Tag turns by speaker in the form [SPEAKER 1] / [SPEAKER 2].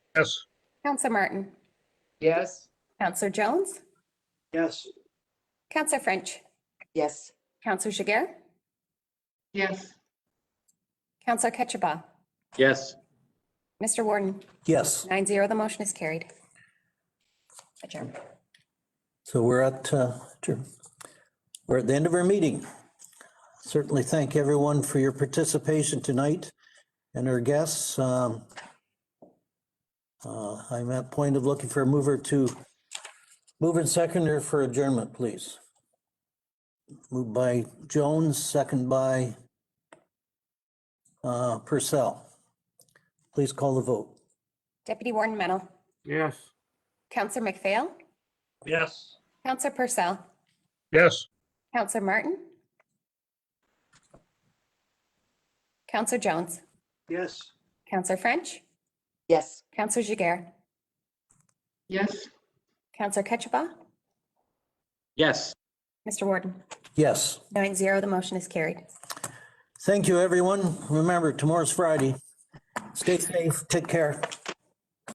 [SPEAKER 1] Yes.
[SPEAKER 2] Counselor Martin,
[SPEAKER 3] Yes.
[SPEAKER 2] Counselor Jones,
[SPEAKER 1] Yes.
[SPEAKER 2] Counselor French,
[SPEAKER 4] Yes.
[SPEAKER 2] Counselor Jiguer,
[SPEAKER 3] Yes.
[SPEAKER 2] Counselor Ketchabah,
[SPEAKER 5] Yes.
[SPEAKER 2] Mr. Warden,
[SPEAKER 6] Yes,
[SPEAKER 2] nine zero, the motion is carried. Adjourned.
[SPEAKER 6] so we're at, uh, adjourn. we're at the end of our meeting. Certainly thank everyone for your participation tonight and our guests. Um, uh, I'm at point of looking for a mover to, move and seconder for adjournment, please. Moved by Jones, second by uh, Purcell. Please call the vote.
[SPEAKER 2] Deputy Warden Mennel,
[SPEAKER 1] Yes.
[SPEAKER 2] Counselor McPhail,
[SPEAKER 1] Yes.
[SPEAKER 2] Counselor Purcell,
[SPEAKER 1] Yes.
[SPEAKER 2] Counselor Martin, Counselor Jones,
[SPEAKER 1] Yes.
[SPEAKER 2] Counselor French,
[SPEAKER 4] Yes.
[SPEAKER 2] Counselor Jiguer,
[SPEAKER 3] Yes.
[SPEAKER 2] Counselor Ketchabah,
[SPEAKER 5] Yes.
[SPEAKER 2] Mr. Warden,
[SPEAKER 6] Yes.
[SPEAKER 2] nine zero, the motion is carried.
[SPEAKER 6] Thank you, everyone. Remember, tomorrow's Friday. Stay safe, take care.